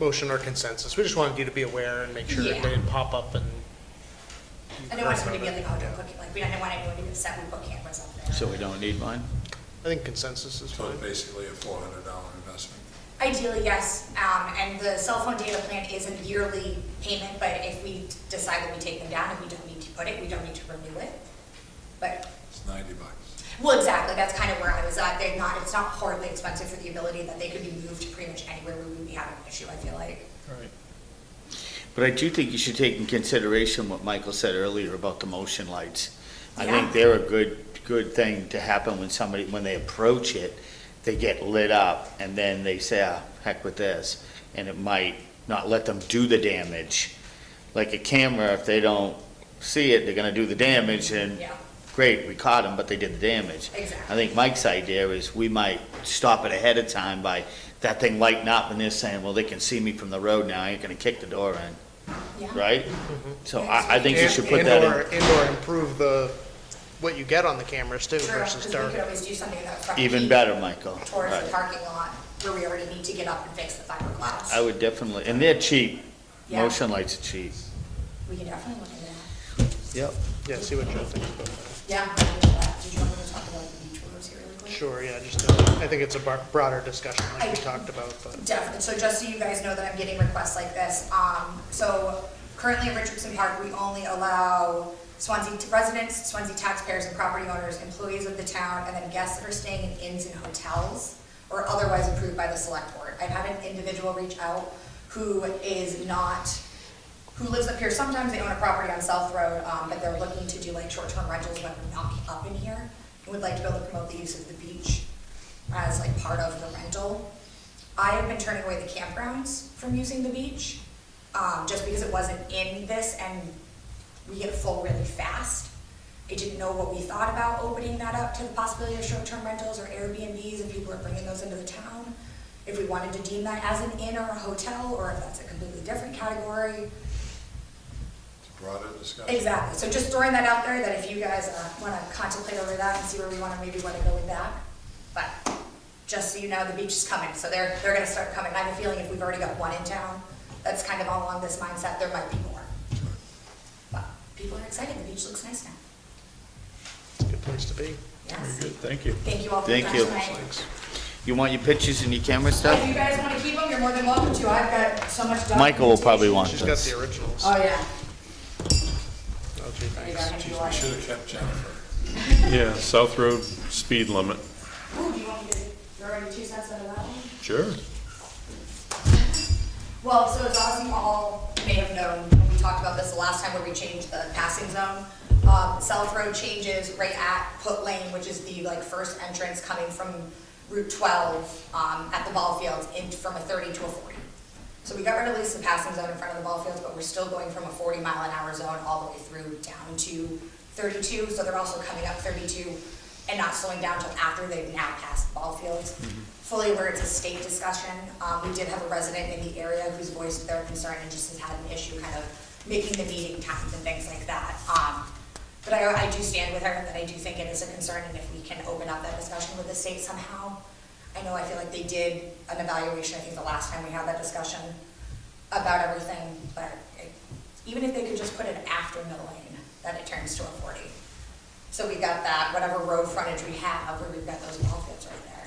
motion or consensus. We just wanted you to be aware and make sure it Yeah. didn't pop up and. I don't want someone to be like, oh, don't put, like, we don't want anyone to be upset when we put cameras up there. So we don't need mine? I think consensus is So fine. it's basically a four hundred dollar investment. Ideally, yes, um, and the cell phone data plan is a yearly payment, but if we decide that we take them down and we don't need to put it, we don't need to renew it. But, It's ninety bucks. well, exactly, that's kind of where I was at, they're not, it's not horribly expensive for the ability that they could be moved to pretty much anywhere we would be having an issue, I feel like. Right. But I do think you should take in consideration what Michael said earlier about the motion lights. I Yeah. think they're a good, good thing to happen when somebody, when they approach it, they get lit up, and then they say, ah, heck with this, and it might not let them do the damage. Like a camera, if they don't see it, they're gonna do the damage, and Yeah. great, we caught them, but they did the damage. Exactly. I think Mike's idea is we might stop it ahead of time by that thing lighting up and they're saying, well, they can see me from the road now, I ain't gonna kick the door in, Yeah. right? So I, I think you And- should put and that or- in, And or improve the, what you get on the cameras too True, versus because we dark. could always do something about front. even peak better, Michael. Towards the Right. parking lot, where we already need to get up and fix the fiberglass. I would definitely, and they're cheap, Yeah. motion lights are cheap. We could definitely look into that. Yep. Yeah, see what Joe thinks about that. Yeah. we can do that. Did you want me to talk about the beach rooms here really quick? Sure, yeah, just, uh, I think it's a bar- broader discussion like we talked about, but. Definitely, so just so you guys know that I'm getting requests like this, um, so currently in Richardson Park, we only allow Swansea residents, Swansea taxpayers and property owners, employees of the town, and then guests that are staying in inns and hotels, or otherwise approved by the select board. I've had an individual reach out who is not, who lives up here, sometimes they own a property on South Road, um, but they're looking to do like short-term rentals when we're not up in here, and would like to be able to promote the use of the beach as like part of the rental. I have been turning away the campgrounds from using the beach, um, just because it wasn't in this and we get full really fast. I didn't know what we thought about opening that up to the possibility of short-term rentals or Airbnbs and people are bringing those into the town. If we wanted to deem that as an inn or a hotel, or if that's a completely different category. It's a broader discussion. Exactly, so just throwing that out there, that if you guys uh, wanna contemplate over that and see where we wanna, maybe wanna go with that. But, just so you know, the beach is coming, so they're, they're gonna start coming, I have a feeling if we've already got one in town, that's kind of all along this mindset, there might be more. But, people are excited, the beach looks nice now, It's a good place to be. yes. Good, thank you. Thank you all for your Thank time you. tonight. You want your pictures and your camera If you stuff? guys wanna keep them, you're more than welcome to, I've got so much documentation. Michael will probably want She's got this. the originals. Oh, yeah. Oh, gee, There you thanks. go, I can do Geez, all we that. should have kept Jennifer. Yeah, South Road speed limit. Ooh, do you want me to, you're already two cents out of that one? Sure. Well, so as as you all may have known, when we talked about this the last time where we changed the passing zone. Um, South Road changes right at Put Lane, which is the like first entrance coming from Route twelve, um, at the ball fields in, from a thirty to a forty. So we got rid of at least the passing zone in front of the ball fields, but we're still going from a forty mile an hour zone all the way through down to thirty-two. So they're also coming up thirty-two and not slowing down until after they've now passed the ball fields. Fully aware it's a state discussion. Um, we did have a resident in the area who's voiced their concern and just has had an issue kind of making the meeting times and things like that. Um, but I, I do stand with her and that I do think it is a concern and if we can open up that discussion with the state somehow. I know I feel like they did an evaluation, I think the last time we had that discussion about everything, but it- even if they could just put it after middle lane, that it turns to a forty. So we got that, whatever road frontage we have, where we've got those ball fields right there.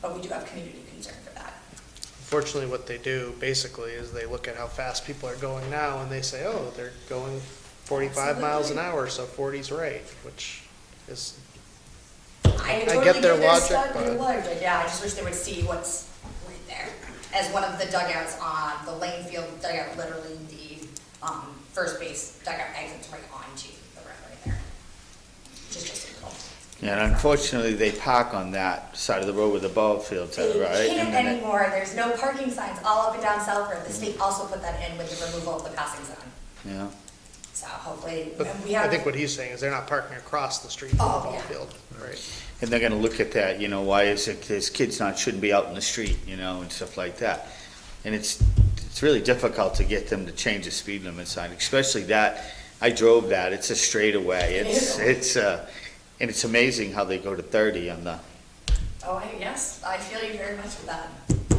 But we do have community concern for that. Unfortunately, what they do basically is they look at how fast people are going now and they say, oh, they're going forty-five miles an hour, so 40's right, which is, I I totally get their logic, stuff, their but- logic, yeah, I just wish they would see what's right there. As one of the dugouts on the lane field dugout, literally the, um, first base dugout exits right onto the road right there. Which is just a And unfortunately, they park on that side of the road with the ball fields, They are, right? can't And then it- anymore, there's no parking signs all up and down South Road, the state also put that in with the removal of the passing zone. Yeah. So hopefully, but and we I have, think what he's saying is they're not parking across the street from the Oh, ball yeah. field, right? And they're gonna look at that, you know, why is it, this kid's not, shouldn't be out in the street, you know, and stuff like that. And it's, it's really difficult to get them to change the speed limit sign, especially that, I drove that, it's a straightaway, It it's, is. it's, uh, and it's amazing how they go to thirty on the, oh, I, yes, I feel you very much with that.